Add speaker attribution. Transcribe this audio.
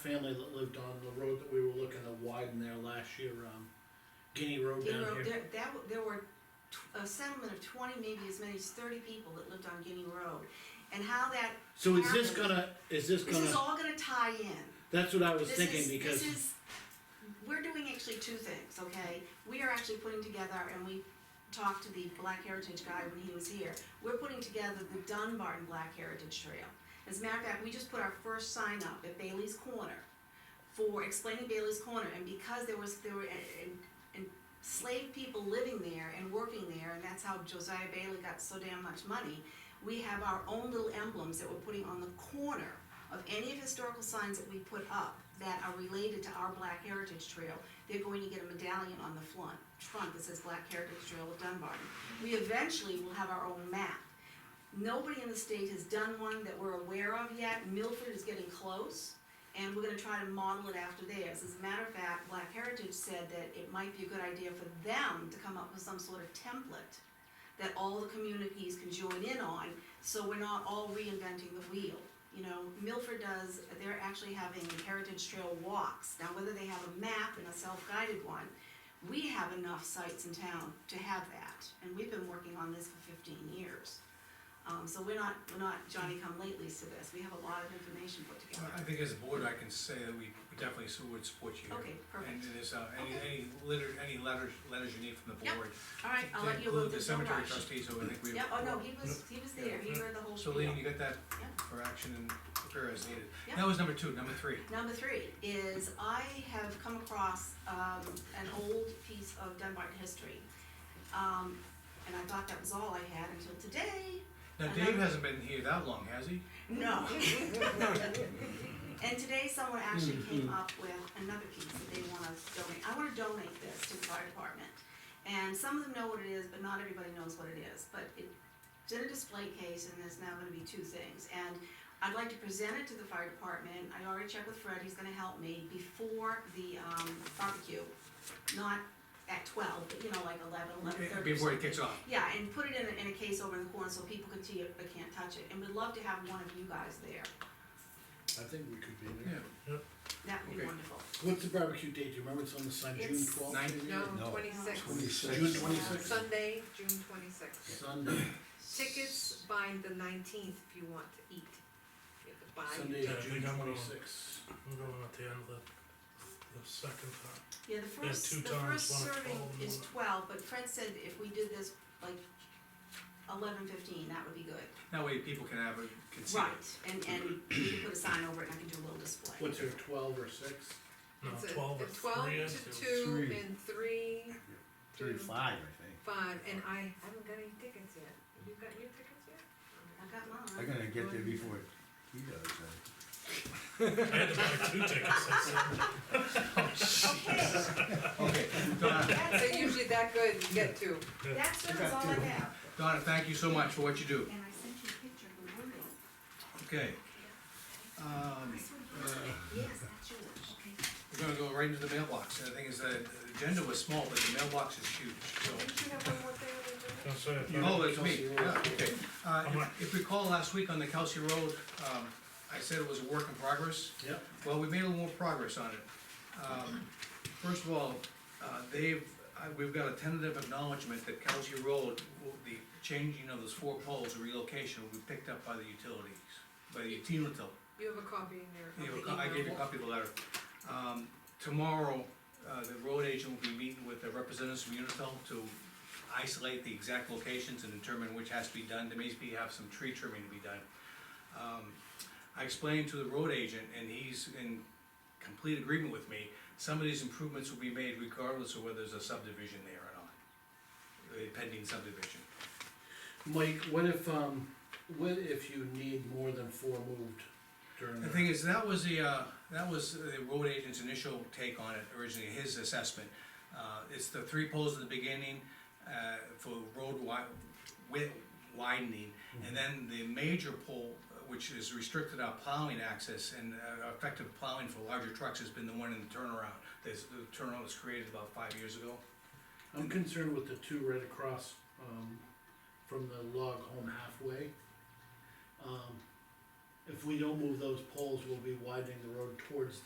Speaker 1: family that lived on the road that we were looking to widen there last year, um, Guinea Road
Speaker 2: Guinea
Speaker 1: down
Speaker 2: Road,
Speaker 1: here.
Speaker 2: there, that, w- there were tw- a settlement of twenty, maybe as many as thirty people that lived on Guinea Road. And how that,
Speaker 1: So is this
Speaker 2: happened.
Speaker 1: gonna, is this
Speaker 2: this is
Speaker 1: gonna,
Speaker 2: all gonna tie in.
Speaker 1: that's what I was
Speaker 2: This is-
Speaker 1: thinking, because,
Speaker 2: This is, we're doing actually two things, okay? We are actually putting together, and we talked to the Black Heritage guy when he was here, we're putting together the Dunbarton Black Heritage Trail. As a matter of fact, we just put our first sign up at Bailey's Corner for explaining Bailey's Corner, and because there was, there were uh, uh, enslaved people living there and working there, and that's how Josiah Bailey got so damn much money, we have our own little emblems that we're putting on the corner of any of historical signs that we put up that are related to our Black Heritage Trail, they're going to get a medallion on the front, front that says Black Heritage Trail of Dunbarton. We eventually will have our own map. Nobody in the state has done one that we're aware of yet, Milford is getting close, and we're gonna try to model it after theirs. As a matter of fact, Black Heritage said that it might be a good idea for them to come up with some sort of template that all the communities can join in on, so we're not all reinventing the wheel. You know, Milford does, they're actually having Heritage Trail walks, now whether they have a map and a self-guided one, we have enough sites in town to have that, and we've been working on this for fifteen years. Um, so we're not, we're not Johnny come latelys to this, we have a lot of information put
Speaker 3: Well,
Speaker 2: together.
Speaker 3: I think as a board, I can say that we definitely su- would support you. here.
Speaker 2: Okay, perfect.
Speaker 3: And there's, uh, any,
Speaker 2: Okay.
Speaker 3: any letter, any letters, letters you need from the
Speaker 2: Yep,
Speaker 3: board.
Speaker 2: All right, I'll
Speaker 3: to
Speaker 2: let you
Speaker 3: include
Speaker 2: know, there's no
Speaker 3: The cemetery
Speaker 2: rush.
Speaker 3: trustees, so I think we.
Speaker 2: Yeah, oh no, he was, he was there, he heard the whole
Speaker 3: So
Speaker 2: spiel.
Speaker 3: Lee, you got that
Speaker 2: Yep.
Speaker 3: for action and prepare as needed.
Speaker 2: Yep.
Speaker 3: That was number two, number three.
Speaker 2: Number three is I have come across um, an old piece of Dunbarton history. Um, and I thought that was all I had until today.
Speaker 3: Now,
Speaker 2: And
Speaker 3: Dave
Speaker 2: I'm-
Speaker 3: hasn't been here that long, has he?
Speaker 2: No. And today someone actually came up with another piece that they wanna donate. I wanna donate this to the fire department. And some of them know what it is, but not everybody knows what it is. But it's in a display case and there's now gonna be two things. And I'd like to present it to the fire department. I already checked with Fred, he's gonna help me before the um, barbecue. Not at twelve, but you know, like eleven, eleven thirty or something.
Speaker 3: Before it kicks off.
Speaker 2: Yeah, and put it in a, in a case over in the corner so people can see it but can't touch it, and we'd love to have one of you guys there,
Speaker 1: I think we could be
Speaker 3: Yeah.
Speaker 1: there.
Speaker 2: that would be
Speaker 3: Okay.
Speaker 2: wonderful.
Speaker 1: What's the barbecue date, do you remember it's on the sign, June
Speaker 2: It's
Speaker 1: twelfth?
Speaker 3: nine-
Speaker 4: No,
Speaker 5: No.
Speaker 4: twenty-six.
Speaker 5: Twenty-six.
Speaker 1: June twenty-sixth,
Speaker 4: Sunday, June twenty-sixth.
Speaker 1: Sunday,
Speaker 4: Tickets by the nineteenth if you want to eat. You have to buy your
Speaker 1: Sunday,
Speaker 6: Yeah, we
Speaker 1: June
Speaker 6: got one on-
Speaker 1: twenty-sixth.
Speaker 6: I'm going at the end of the, the second time.
Speaker 2: Yeah, the
Speaker 6: have
Speaker 2: first,
Speaker 6: two
Speaker 2: the
Speaker 6: times,
Speaker 2: first
Speaker 6: one at
Speaker 2: serving
Speaker 6: 12 and
Speaker 2: is
Speaker 6: one at-
Speaker 2: twelve, but Fred said if we did this like eleven fifteen, that would be good.
Speaker 3: That way people can have, a can see it.
Speaker 2: And, and we can put a sign over it and I can do a little display.
Speaker 1: What's there, twelve or six?
Speaker 6: No,
Speaker 4: It's a-
Speaker 6: twelve or
Speaker 4: it's twelve
Speaker 6: three is.
Speaker 4: to two
Speaker 5: Three.
Speaker 4: and three. to
Speaker 5: Thirty-five, I
Speaker 4: Five, and I haven't got any tickets yet. Have you got your tickets yet?
Speaker 2: I got mine.
Speaker 5: think. I'm gonna get there before he does, uh,
Speaker 6: I had to buy two tickets, I said.
Speaker 2: Okay,
Speaker 3: Okay, Donna,
Speaker 4: They're
Speaker 2: that's,
Speaker 4: usually that good, you get two.
Speaker 2: that's it, that's all I have.
Speaker 3: Donna, thank you so much for what you do.
Speaker 2: And I sent you a picture of the wording.
Speaker 3: Okay. Um, uh,
Speaker 2: Yes, that's yours. Okay.
Speaker 3: We're gonna go right into the mailbox, and the thing is, uh, the agenda was small, but the mailbox is huge, so.
Speaker 4: Didn't you have one more thing on the agenda?
Speaker 6: Don't say it.
Speaker 3: Oh, it's me,
Speaker 1: Kelsey Road.
Speaker 3: yeah, okay. Uh,
Speaker 6: I'm like-
Speaker 3: if- if you recall last week on the Kelsey Road, um, I said it was a work in progress.
Speaker 1: Yep.
Speaker 3: Well, we made a little more progress on it. Um, First of all, uh, they've, uh, we've got a tentative acknowledgement that Kelsey Road, will- the changing of those four poles, relocation, will be picked up by the utilities, by the utility.
Speaker 4: You have a copy in there
Speaker 3: Yeah,
Speaker 4: of the
Speaker 3: well, I gave you a
Speaker 4: email.
Speaker 3: copy of the letter. Um, tomorrow, uh, the road agent will be meeting with the representatives from Unitil to isolate the exact locations and determine which has to be done, there may be, have some tree trimming to be done. Um, I explained to the road agent, and he's in complete agreement with me, some of these improvements will be made regardless of whether there's a subdivision there or not. A pending subdivision.
Speaker 1: Mike, what if, um, what if you need more than four moved during
Speaker 3: The
Speaker 1: the,
Speaker 3: thing is, that was the, uh, that was the road agent's initial take on it originally, his assessment. Uh, it's the three poles at the beginning, uh, for road wi- wi- widening. And then the major pole, uh, which is restricted our plowing access and uh, effective plowing for larger trucks has been the one in the turnaround. There's, the turnaround was created about five years ago.
Speaker 1: I'm concerned with the two right across, um, from the log home halfway. Um, if we don't move those poles, we'll be widening the road towards